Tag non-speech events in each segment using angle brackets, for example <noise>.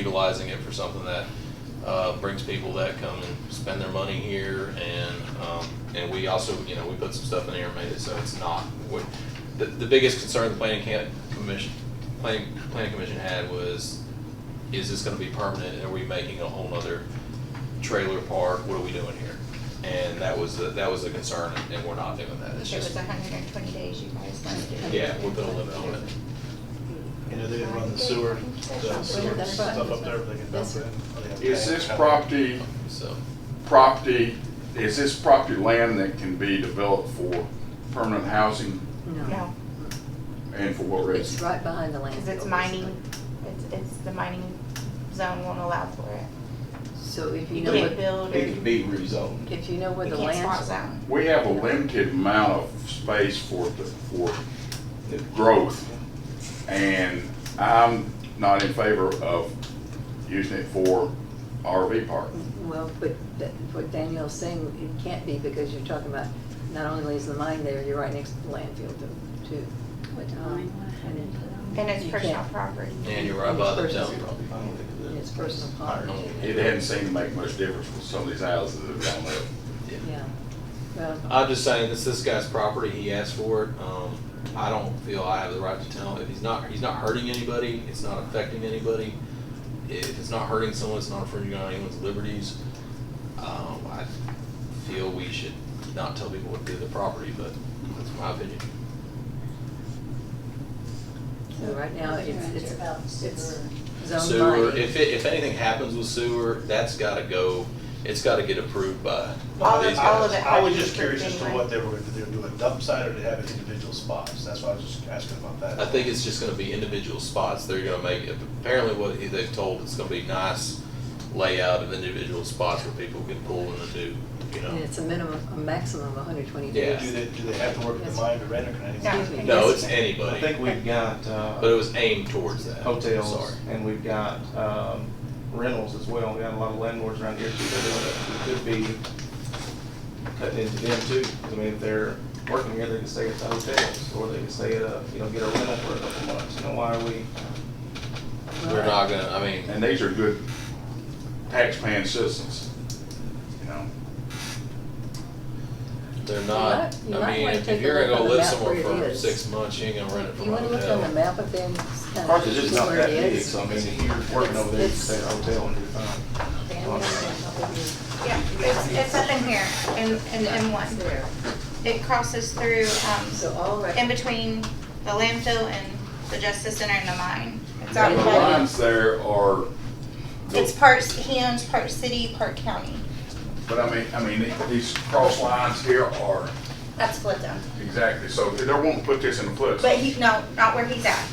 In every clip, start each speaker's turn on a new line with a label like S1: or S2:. S1: utilizing it for something that uh, brings people that come and spend their money here, and um, and we also, you know, we put some stuff in here, and made it so it's not. What, the, the biggest concern the planning can commission, planning planning commission had was, is this going to be permanent? Are we making a whole other trailer park? What are we doing here? And that was the, that was the concern, and we're not doing that. It's
S2: If it was
S1: just
S2: hundred and twenty days, you guys wanted to.
S1: yeah, we put a limit on it.
S3: You know, they didn't run the sewer, the sewer stuff up there, but they can dump it. in. Or they have
S4: Is this
S3: tanks.
S4: property,
S1: So
S4: property, is this property land that can be developed for permanent housing
S2: No,
S4: and for what
S5: It's
S4: reason?
S5: right behind the landfill.
S2: because it's mining, it's, it's, the mining zone won't allow for it.
S5: So if you
S2: You
S5: know,
S2: can't
S5: what-
S2: build or,
S6: It can
S2: you
S6: be rezoned.
S5: if you know where the
S2: can't spot
S5: land,
S2: zone.
S4: We have a limited amount of space for, the- for growth. And I'm not in favor of using it for RV park.
S5: well, but that- what Daniel's saying, it can't be because you're talking about, not only is the mine there, you're right next to the landfill too- too. Um,
S2: And it's
S5: You
S2: personal
S5: can't.
S2: property.
S1: and you're right by the
S5: It's
S1: town.
S5: personal.
S1: property.
S6: I don't think it
S5: and
S6: is.
S5: It's personal property.
S4: It doesn't seem to make much difference with some of these houses that are down there.
S1: Yeah. Uh,
S5: Yeah, well,
S1: I'm just saying, this this guy's property, he asked for it, um, I don't feel I have the right to tell him, if he's not, he's not hurting anybody, it's not affecting anybody. If it's not hurting someone, it's not infringing on anyone's liberties, um, I feel we should not tell people what to do with their property, but that's my opinion.
S5: so right now, it's, it's, it's zoned
S1: Sewer,
S5: mining.
S1: if it, if anything happens with sewer, that's gotta go, it's gotta get approved by
S2: All
S1: these guys.
S2: of, all of it.
S3: I
S2: had
S3: was
S2: to be
S3: just curious as to
S2: anyway.
S3: what they were, if they were doing dump site or they have it individual spots, that's why I was just asking about that.
S1: I think it's just gonna be individual spots, they're gonna make, apparently what he- they've told, it's gonna be nice layout of individual spots where people can pull in and do, you
S5: And
S1: know.
S5: it's a minimum, a maximum of hundred twenty
S1: Yeah.
S5: days.
S3: Do they, do they have to work with the mine to rent or can anything?
S2: No.
S5: Excuse me.
S1: No, it's
S6: I
S1: anybody,
S6: think we've got,
S1: but it
S6: uh,
S1: was aimed towards that,
S6: hotels
S1: sorry.
S6: and we've got, um, rentals as well. We've got a lot of landlords around here too that are doing it. We could be cutting into them too. I mean, if they're working here, they can stay at the hotels or they can stay at a, you know, get a rental for a couple months. You know, why are we?
S1: We're not gonna, I mean,
S4: And these are good taxpaying citizens, you know?
S1: they're
S5: You
S1: not,
S5: might- you
S1: I
S5: might
S1: mean,
S5: wanna
S1: if
S5: take a
S1: you're
S5: look
S1: gonna
S5: on
S1: go
S5: the
S1: live
S5: map
S1: somewhere
S5: where it
S1: for
S5: is.
S1: six months, you ain't gonna rent it
S5: If
S1: from
S5: you
S1: a
S5: wanna look on the
S1: hotel.
S5: map up there, and just kind of.
S6: Carthage is not
S5: where
S6: that
S5: it
S6: big,
S5: is.
S6: so I mean, if you're working over there, you can stay at a hotel and you're fine.
S5: Daniel,
S2: Yeah, it's, it's up in here, in, in M one. It crosses through,
S5: So
S2: um,
S5: all right.
S2: in between the landfill and the justice center and the mine. It's
S4: The
S2: out by,
S4: lines there are.
S2: it's part, he owns part city, part county.
S4: But I mean, I mean, these cross lines here are,
S2: That's split zone.
S4: exactly, so they won't put this in the place.
S2: But he, no, not where he's at.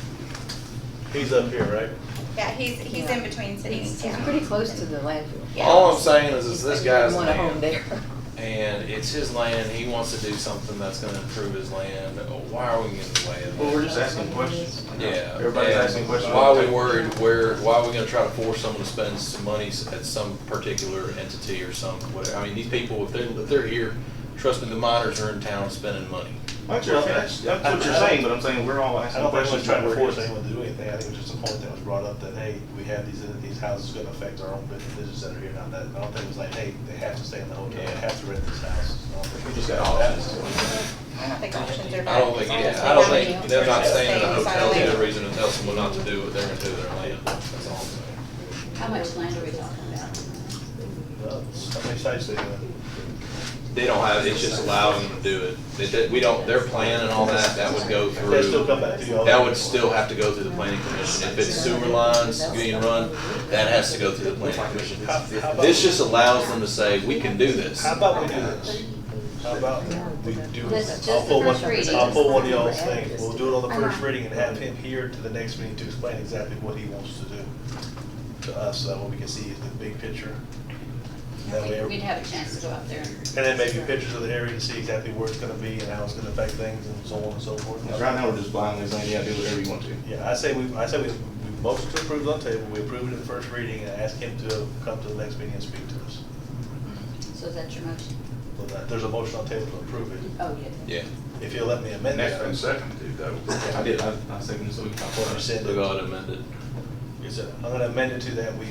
S3: He's up here, right?
S2: Yeah, he's, he's in between cities
S5: It's
S2: and
S5: it's
S2: towns.
S5: pretty close to the landfill.
S2: Yeah.
S1: All I'm saying is, is this
S5: You
S1: guy's
S5: want a home
S1: land,
S5: there. <laughs>
S1: and it's his land, he wants to do something that's gonna improve his land, why are we getting in the way of that?
S6: Well, we're just asking questions.
S1: Yeah.
S6: Everybody's
S1: and
S6: asking questions.
S1: Why are we worried, where, why are we gonna try to force someone to spend some money s- at some particular entity or some, whatever, I mean, these people, if they're, if they're here, trust me, the miners are in town spending money.
S6: That's your- that's- that's what you're saying, but I'm saying we're all
S3: I
S6: asking
S3: don't think anyone's
S6: questions.
S3: trying to
S6: about where it
S3: force
S6: is.
S3: anyone to do anything, I think it was just a point that was brought up that, hey, we have these, these houses gonna affect our own businesses that are here now, that, I don't think it was like, hey, they have to stay in the hotel, they have to rent this house. I don't think
S6: We
S3: it
S6: just
S3: was
S6: got
S3: like
S6: options.
S3: that.
S2: I don't think options are bad.
S1: I don't think, yeah, I don't think, they're not staying in a hotel, they're a reason to tell someone not to do what they're gonna do with their land, that's all I'm saying.
S7: How much land are we talking about?
S3: Well, How many sites they have?
S1: They don't have, it's just allowing them to do it, they, they- we don't, their plan and all that, that would go through.
S3: They still come back to y'all.
S1: That would still have to go through the planning commission. If it's sewer lines being run, that has to go through the planning commission.
S3: How- how about-
S1: This just allows them to say, we can do this.
S3: How about we do this? How about we do
S7: This
S3: this?
S7: is just
S3: I'll pull
S7: the
S3: one,
S7: first reading.
S3: I'll pull one of y'all's things, we'll do it on the first reading and have him here to the next meeting to explain exactly what he wants to do to us, so that way we can see the big picture. That way,
S7: We'd- We'd
S3: every-
S7: have a chance to go out there and.
S3: and then maybe pictures of the area to see exactly where it's gonna be and how it's gonna affect things and so on and so forth.
S6: Because right now, we're just blindly saying, yeah, do whatever you want to.
S3: Yeah, I say we, I say we, we motion to approve on table, we approve it in the first reading and ask him to come to the next meeting and speak to us.
S7: So that's your motion?
S3: So that- There's a motion on table to approve it,
S7: Oh, yeah.
S1: Yeah,
S3: if you'll let me amend
S4: And
S3: that.
S4: that's been seconded though.
S6: I did, I, I seconded, so we can.
S3: What you said.
S1: so go ahead and amend it.
S3: Yeah, is, it- I'm gonna amend it to that we